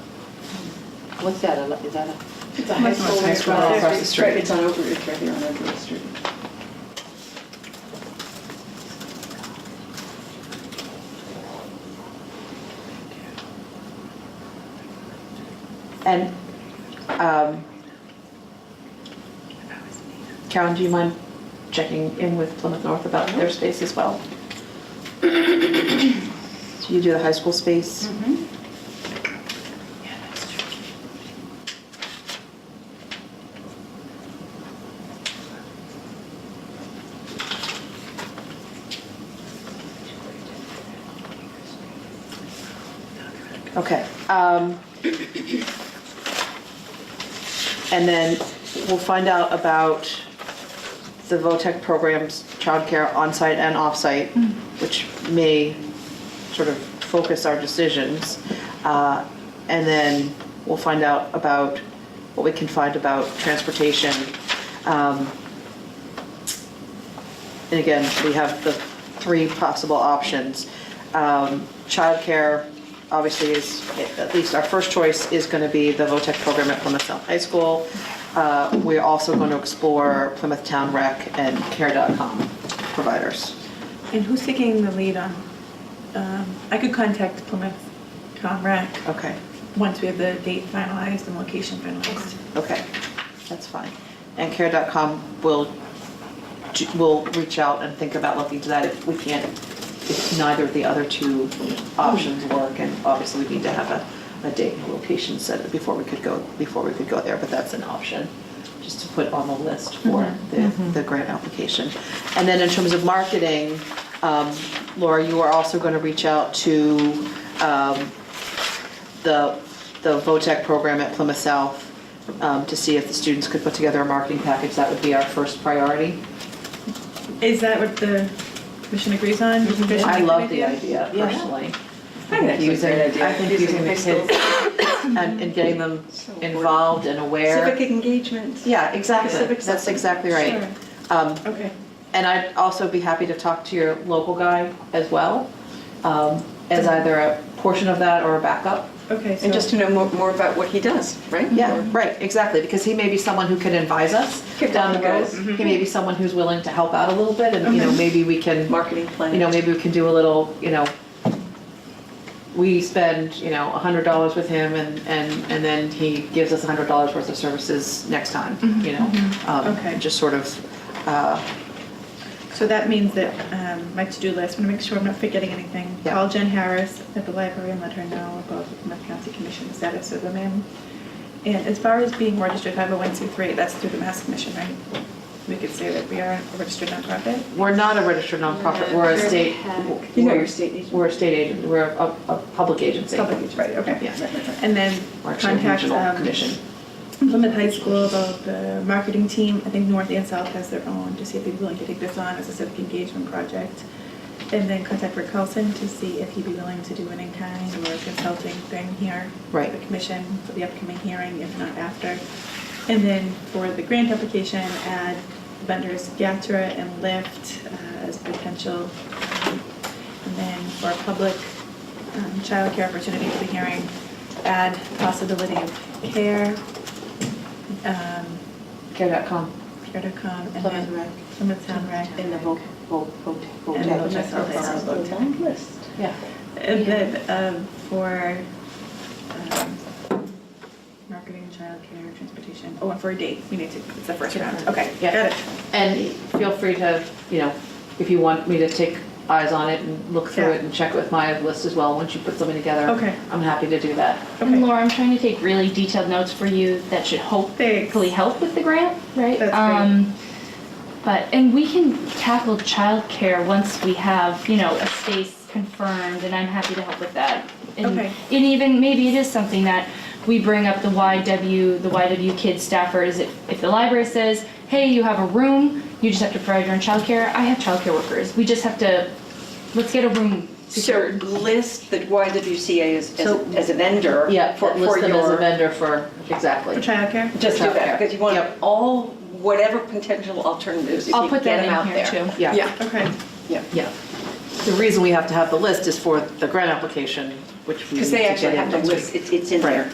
What's that, a- is that a? It's a high school. High school across the It's right- street. It's on over, it's right here on Overwood Street. And, um, Karen, do you mind checking in with Plymouth North about their space as well? So you do the high school space? Okay. um, And then we'll find out about the VOTEC programs, childcare on-site and off-site, which may sort of focus our decisions. Uh, And then we'll find out about what we can find about transportation. Um, And again, we have the three possible options. Um, Childcare, obviously, is, at least our first choice is going to be the VOTEC program at Plymouth South High School. Uh, We're also going to explore Plymouth Town Rec and Care.com providers. And who's taking the lead on, um, I could contact Plymouth Comrec Okay, once we have the date finalized and location finalized. okay, that's fine. And Care.com will, ju- will reach out and think about looking to that if we can't, if neither of the other two options work. And obviously, we need to have a, a date and a location set before we could go, before we could go there, but that's an option, just to put on the list for the, the grant application. And then in terms of marketing, um, Laura, you are also going to reach out to um, the, the VOTEC program at Plymouth South um, to see if the students could put together a marketing package. That would be our first priority. Is that what the commission agrees on? Does the commission Mm-hmm. I like love the idea personally. I think that's a Using- great idea. I think using the kids and, and getting them So involved and aware. Civic engagement. Yeah, exactly. Civic That's something. exactly right. Um, Okay. And I'd also be happy to talk to your local guy as well, um, as either a portion of that or a backup. Okay, so. And just to know more, more about what he does, right? Yeah, right, exactly, because he may be someone who can advise us Give down the them a road. go. He may be someone who's willing to help out a little bit, and, you know, maybe we can, Marketing plan. you know, maybe we can do a little, you know, we spend, you know, a hundred dollars with him, and, and, and then he gives us a hundred dollars worth of services next time, you know? Um, Okay. Just sort of, uh, So that means that um, my to-do list, I'm gonna make sure I'm not forgetting anything. Yeah. Call Jen Harris at the library and let her know about the Plymouth County Commission status of the man. And as far as being registered 501c3, that's through the Mass Commission, right? We could say that we are a registered nonprofit. we're not a registered nonprofit, we're a Very state. hack. You know, your state agent. We're a state agent, we're a, a public agency. Public agency, right, okay. Yeah. And then We're actually a contact regional um, commission. Plymouth High School about the marketing team. I think North and South has their own, to see if they'd be willing to take this on as a civic engagement project. And then contact Rick Carlson to see if he'd be willing to do an in-kind or consulting thing here. for Right. The commission for the upcoming hearing, if not after. And then for the grant application, add vendors Gatra and Lyft uh, as potential. And then for a public um, childcare opportunity for the hearing, add possibility of care, um, Care.com. care.com, and Plymouth then Rec. Plymouth Town Rec. In the vote, vote, vote. And vote. the missile Sounds like a long list. Yeah. And then um, for um, marketing, childcare, transportation, oh, and for a date, we need to, it's the first round, okay, Yeah. got it. And feel free to, you know, if you want me to take eyes on it and look through Yeah. it and check with my list as well, once you put something together. Okay. I'm happy to do that. Okay. And Laura, I'm trying to take really detailed notes for you that should hopefully Thanks. help with the grant, right? That's great. Um, But, and we can tackle childcare once we have, you know, a space confirmed, and I'm happy to help with that. And- Okay. And even, maybe it is something that we bring up the YW, the YW kids staffers, if, if the library says, hey, you have a room, you just have to provide your own childcare, I have childcare workers, we just have to, let's get a room So secured. list the YWCA as, as So- a- as a vendor. Yeah, for list for them as a your- vendor for, exactly. For childcare? Just do Childcare. that, because you want Yep. all, whatever potential alternatives, if I'll you put get that them out in there. here too. Yeah, Yeah, Okay, yeah. yeah. The reason we have to have the list is for the grant application, which we. Because they need to actually get have in to next week. list, it's, it's in Right. there.